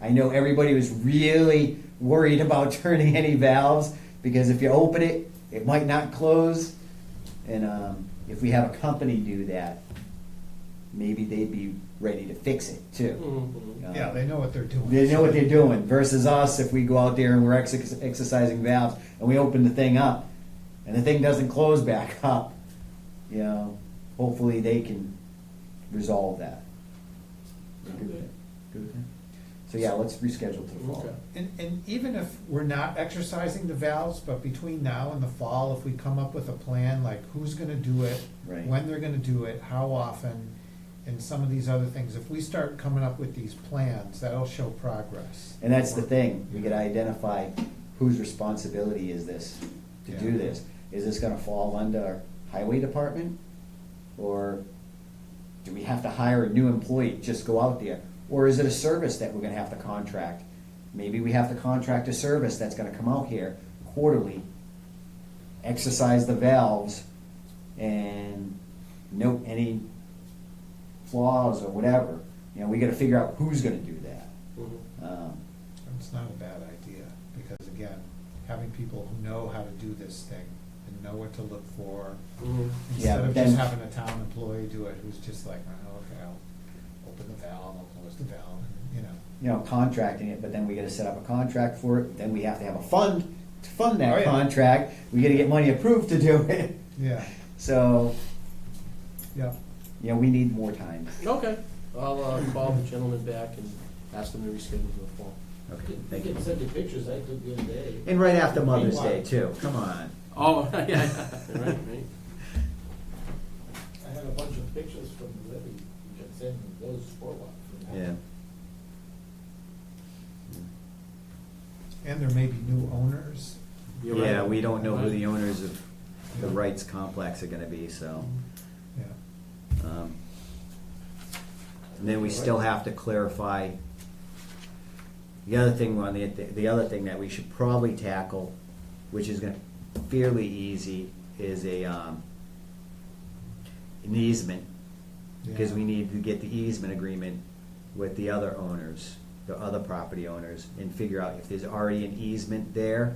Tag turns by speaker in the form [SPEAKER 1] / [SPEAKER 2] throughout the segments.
[SPEAKER 1] I know everybody was really worried about turning any valves because if you open it, it might not close. And um, if we have a company do that, maybe they'd be ready to fix it too.
[SPEAKER 2] Mhm.
[SPEAKER 1] Um,
[SPEAKER 3] Yeah, they know what they're doing.
[SPEAKER 1] They know what they're doing versus us if we go out there and we're ex- exercising valves and we open the thing up and the thing doesn't close back up. You know, hopefully they can resolve that. Good with
[SPEAKER 2] Okay.
[SPEAKER 1] that? Good with that? So yeah, let's reschedule to the fall.
[SPEAKER 2] Okay.
[SPEAKER 3] And, and even if we're not exercising the valves, but between now and the fall, if we come up with a plan, like who's gonna do it,
[SPEAKER 1] Right.
[SPEAKER 3] when they're gonna do it, how often, and some of these other things, if we start coming up with these plans, that'll show progress.
[SPEAKER 1] And that's the thing, we gotta identify whose responsibility is this to do
[SPEAKER 3] Yeah.
[SPEAKER 1] this. Is this gonna fall under highway department? Or do we have to hire a new employee, just go out there? Or is it a service that we're gonna have to contract? Maybe we have to contract a service that's gonna come out here quarterly, exercise the valves and note any flaws or whatever. You know, we gotta figure out who's gonna do that.
[SPEAKER 2] Mhm.
[SPEAKER 1] Um,
[SPEAKER 3] It's not a bad idea, because again, having people who know how to do this thing and know what to look for,
[SPEAKER 2] Mhm.
[SPEAKER 1] Yeah,
[SPEAKER 3] instead of
[SPEAKER 1] but
[SPEAKER 3] just
[SPEAKER 1] then-
[SPEAKER 3] having a town employee do it, who's just like, oh, okay, I'll open the valve, I'll close the valve, and, you know.
[SPEAKER 1] you know, contracting it, but then we gotta set up a contract for it, then we have to have a fund to fund
[SPEAKER 3] Oh,
[SPEAKER 1] that
[SPEAKER 3] yeah.
[SPEAKER 1] contract, we gotta get money approved to do it.
[SPEAKER 3] Yeah,
[SPEAKER 1] So,
[SPEAKER 3] yeah.
[SPEAKER 1] you know, we need more time.
[SPEAKER 2] Okay, I'll uh, call the gentleman back and ask them to reschedule for the fall.
[SPEAKER 1] Okay,
[SPEAKER 4] They can send you pictures I took the other day.
[SPEAKER 1] And right after Mother's
[SPEAKER 4] Meanwhile-
[SPEAKER 1] Day too, come on.
[SPEAKER 2] Oh, yeah, yeah, right, right.
[SPEAKER 4] I have a bunch of pictures from the levee. You can send those forward.
[SPEAKER 1] Yeah.
[SPEAKER 3] And there may be new owners.
[SPEAKER 2] You're right.
[SPEAKER 1] Yeah, we don't know who the
[SPEAKER 2] Right.
[SPEAKER 1] owners of the rights complex are gonna be, so.
[SPEAKER 3] Yeah,
[SPEAKER 1] um, And then we still have to clarify, the other thing, on the, the other thing that we should probably tackle, which is gonna fairly easy, is a, um, an easement, because we need to get the easement agreement with the other owners, the other property owners, and figure out if there's already an easement there,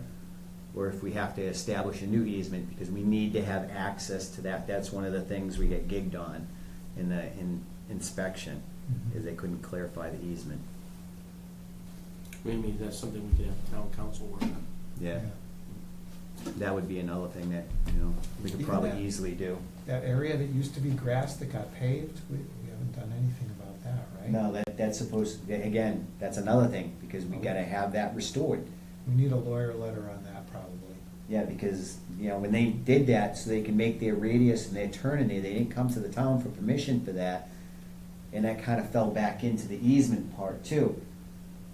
[SPEAKER 1] or if we have to establish a new easement, because we need to have access to that, that's one of the things we get gigged on in the, in inspection,
[SPEAKER 3] Mm-hmm.
[SPEAKER 1] is they couldn't clarify the easement,
[SPEAKER 2] Maybe that's something we could have town council work on.
[SPEAKER 1] yeah, that would be another thing that, you know, we could
[SPEAKER 3] Even
[SPEAKER 1] probably
[SPEAKER 3] that-
[SPEAKER 1] easily do.
[SPEAKER 3] That area that used to be grass that got paved, we, we haven't done anything about that, right?
[SPEAKER 1] No, that, that's supposed, again, that's another thing, because
[SPEAKER 3] Oh.
[SPEAKER 1] we gotta have that restored.
[SPEAKER 3] We need a lawyer letter on that probably.
[SPEAKER 1] Yeah, because, you know, when they did that, so they can make their radius and their turn in there, they didn't come to the town for permission for that. And that kind of fell back into the easement part too.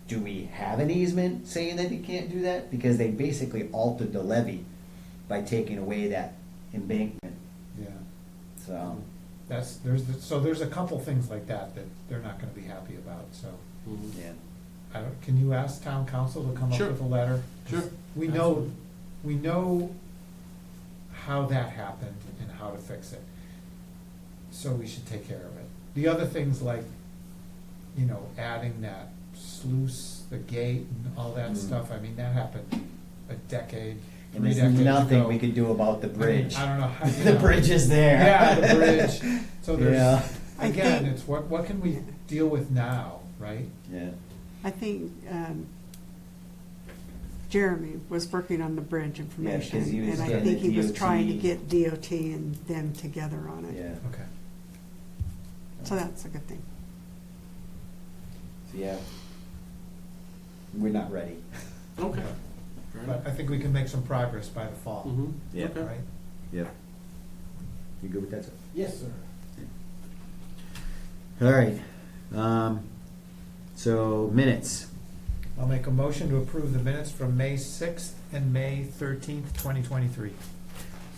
[SPEAKER 1] Do we have an easement saying that they can't do that? Because they basically altered the levy by taking away that embankment,
[SPEAKER 3] Yeah.
[SPEAKER 1] so.
[SPEAKER 3] That's, there's, the- so there's a couple things like that that they're not gonna be happy about, so.
[SPEAKER 2] Mhm.
[SPEAKER 1] Yeah,
[SPEAKER 3] I don't, Uh, can you ask town council to come up
[SPEAKER 2] Sure.
[SPEAKER 3] with a letter?
[SPEAKER 2] Sure.
[SPEAKER 3] We know,
[SPEAKER 2] Absolutely.
[SPEAKER 3] we know how that happened and how to fix it. So we should take care of it. The other things like, you know, adding that sluice, the gate and all that
[SPEAKER 1] Mm.
[SPEAKER 3] stuff, I mean, that happened a decade,
[SPEAKER 1] and
[SPEAKER 3] three
[SPEAKER 1] there's
[SPEAKER 3] decades ago.
[SPEAKER 1] nothing we could do about the
[SPEAKER 3] I mean,
[SPEAKER 1] bridge.
[SPEAKER 3] I don't know how. you
[SPEAKER 1] The
[SPEAKER 3] know.
[SPEAKER 1] bridge is there.
[SPEAKER 3] Yeah, the bridge. So
[SPEAKER 1] Yeah.
[SPEAKER 3] there's,
[SPEAKER 5] I
[SPEAKER 3] again,
[SPEAKER 5] think-
[SPEAKER 3] it's what, what can we deal with now, right?
[SPEAKER 1] Yeah,
[SPEAKER 5] I think um, Jeremy was working on the bridge information,
[SPEAKER 1] he was
[SPEAKER 5] and I
[SPEAKER 1] getting
[SPEAKER 5] think
[SPEAKER 1] the
[SPEAKER 5] he was trying to
[SPEAKER 1] DOT.
[SPEAKER 5] get DOT and them together on it.
[SPEAKER 1] yeah.
[SPEAKER 3] Okay.
[SPEAKER 5] So that's a good thing.
[SPEAKER 1] So, yeah. We're not ready.
[SPEAKER 2] Okay.
[SPEAKER 3] But I think we can make some progress by the fall,
[SPEAKER 2] Mm-hmm.
[SPEAKER 1] Yeah.
[SPEAKER 3] right?
[SPEAKER 1] Yep. You good with that, sir?
[SPEAKER 4] Yes, sir.
[SPEAKER 1] All right, um, so minutes,
[SPEAKER 3] I'll make a motion to approve the minutes from May sixth and May thirteenth, twenty twenty-three.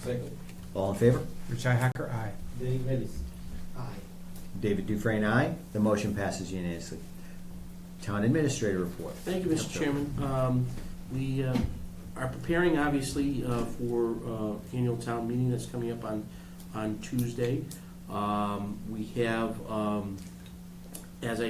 [SPEAKER 4] Second,
[SPEAKER 1] all in favor?
[SPEAKER 3] Richi Hacker, aye.
[SPEAKER 4] Derek Bellis. Aye.
[SPEAKER 1] David Dufresne, aye. The motion passes unanimously. Town Administrator report.
[SPEAKER 2] Thank you, Mr. Chairman. Um, We uh, are preparing, obviously, uh, for uh, annual town meeting that's coming up on, on Tuesday. Um, We have, um, as I